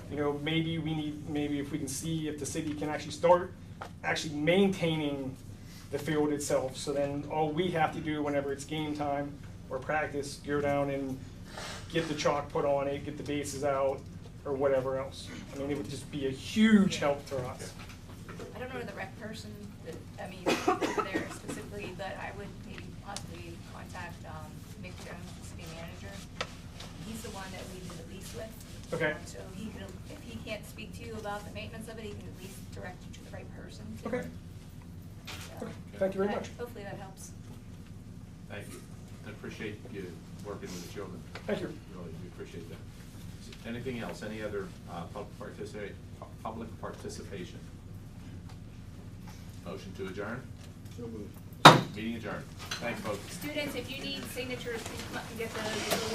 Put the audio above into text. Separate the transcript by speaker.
Speaker 1: you know, maybe we need, maybe if we can see if the city can actually start actually maintaining the field itself, so then all we have to do whenever it's game time or practice, go down and get the chalk put on it, get the bases out, or whatever else. I mean, it would just be a huge help for us.
Speaker 2: I don't know the rec person, that I mean, over there specifically, but I would maybe possibly contact um, Mick Jones, the city manager. He's the one that we did the lease with.
Speaker 1: Okay.
Speaker 2: So he could, if he can't speak to you about the maintenance of it, he can at least direct you to the right person.
Speaker 1: Okay.
Speaker 2: So,
Speaker 1: Okay, Thank you very
Speaker 2: but
Speaker 1: much.
Speaker 2: Hopefully that helps.
Speaker 3: Thank you. I appreciate you working with the children.
Speaker 1: Thank you.
Speaker 3: Really, we appreciate that. Is there Anything else? Any other uh, pub- partici- pu- public participation? Motion to adjourn? Meeting adjourned. Thanks, folks.
Speaker 2: Students, if you need signatures, please come up and get those.